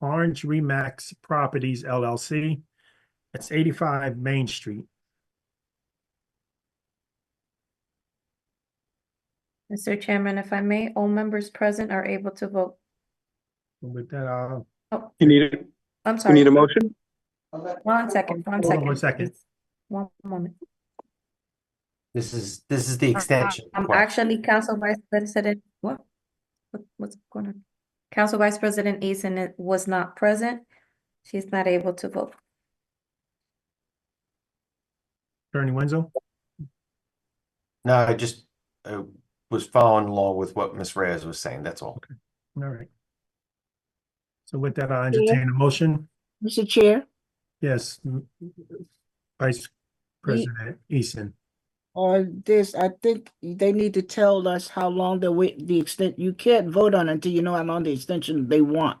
Orange Remax Properties LLC. That's eighty-five Main Street. Mr. Chairman, if I may, all members present are able to vote. And With that, uh, I'll You need, a- I'm you need sorry, a motion? one second, one Hold on second. one second. please. One moment. This is, this is the extension. I'm part. actually Council Vice President, what? What- What's going on? Council Vice President Eason i- was not present. She's not able to vote. Attorney Wenzel. No, I just, uh, was following along with what Ms. Reyes was saying, that's all. All right. So with that, I'll entertain a motion. Mr. Chair, Yes. m- Vice President Eason. on this, I think they need to tell us how long the wait, the extent, you can't vote on until you know how long the extension they want.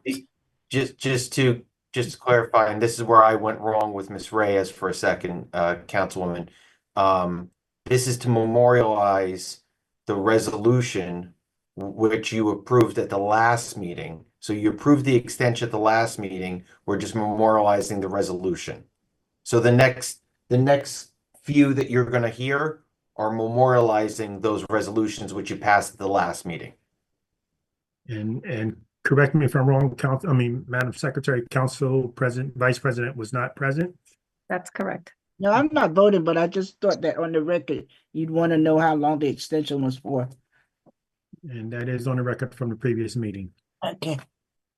Just, just to, just to clarify, and this is where I went wrong with Ms. Reyes for a second, uh, Councilwoman. Um, this is to memorialize the resolution which you approved at the last meeting. So you approved the extension at the last meeting, we're just memorializing the resolution. So the next, the next few that you're gonna hear are memorializing those resolutions which you passed at the last meeting. And, and correct me if I'm wrong, Council, I mean, Madam Secretary, Council President, Vice President was not present. That's correct. No, I'm not voting, but I just thought that on the record, you'd want to know how long the extension was for. And that is on the record from the previous meeting. Okay.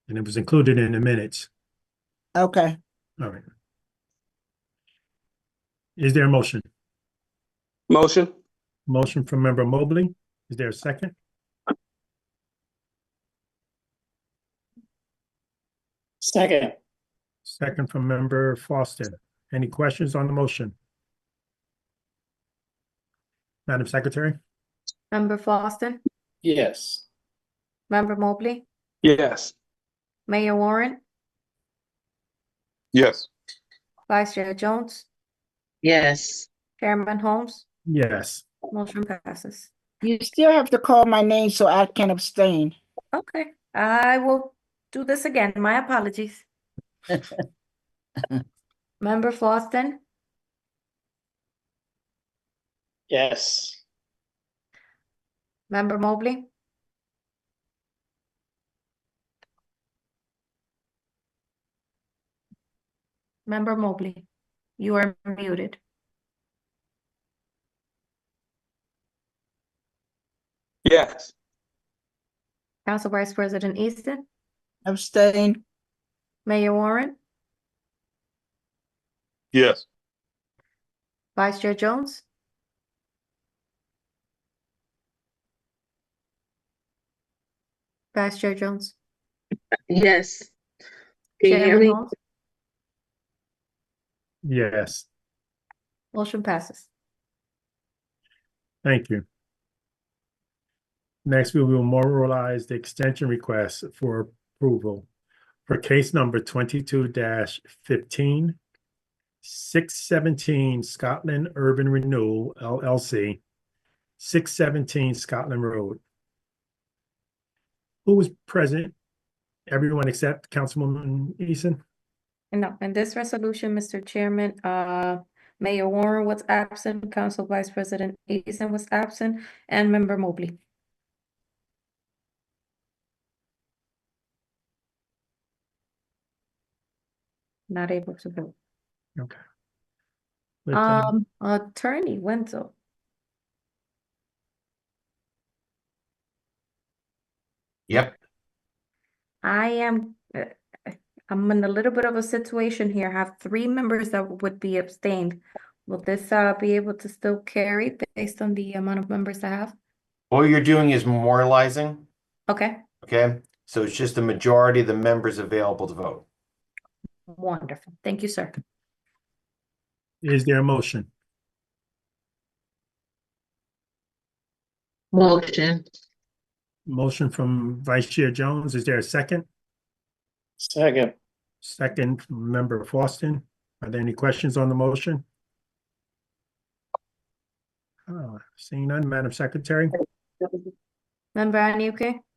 And it was included in the minutes. Okay, All right. Is there a motion? Motion? Motion from member Mobley. Is there a second? Second, Second from member Foster. Any questions on the motion? Madam Secretary? Member Foster, yes. Member Mobley, Yes. Mayor Warren, Yes. Vice Chair Jones, Yes. Chairman Holmes, Yes. motion passes. you still have to call my name so I can abstain. Okay, I will do this again. My apologies. Member Foster, Yes. Member Mobley, Member Mobley, you are muted. Yes. Council Vice President Easton, Abstain. Mayor Warren, Yes. Vice Chair Jones, Vice Chair Jones, Yes. Can you hear Chairman me? Holmes, Yes, motion passes. thank you. Next, we will memorialize the extension request for approval for case number twenty-two 15 617 Scotland Urban Renewal LLC, six seventeen Scotland Road. Who was present? Everyone except Councilwoman Eason? No, in this resolution, Mr. Chairman, uh, Mayor Warren was absent, Council Vice President Eason was absent, and Member Mobley. Not able to vote. With, uh, Um, Attorney Wenzel, Yep. I am, uh, uh, I'm in a little bit of a situation here. I have three members that would be abstained. Will this, uh, be able to still carry based on the amount of members I have? All you're doing is memorializing, Okay, okay? So it's just a majority of the members available to vote. wonderful. Thank you, sir. is there a motion? Motion, Motion from Vice Chair Jones, is there a second? Second, Second, from member Foston. Are there any questions on the motion? Uh, Seeing none, Oh, Madam Secretary? Member Anukin,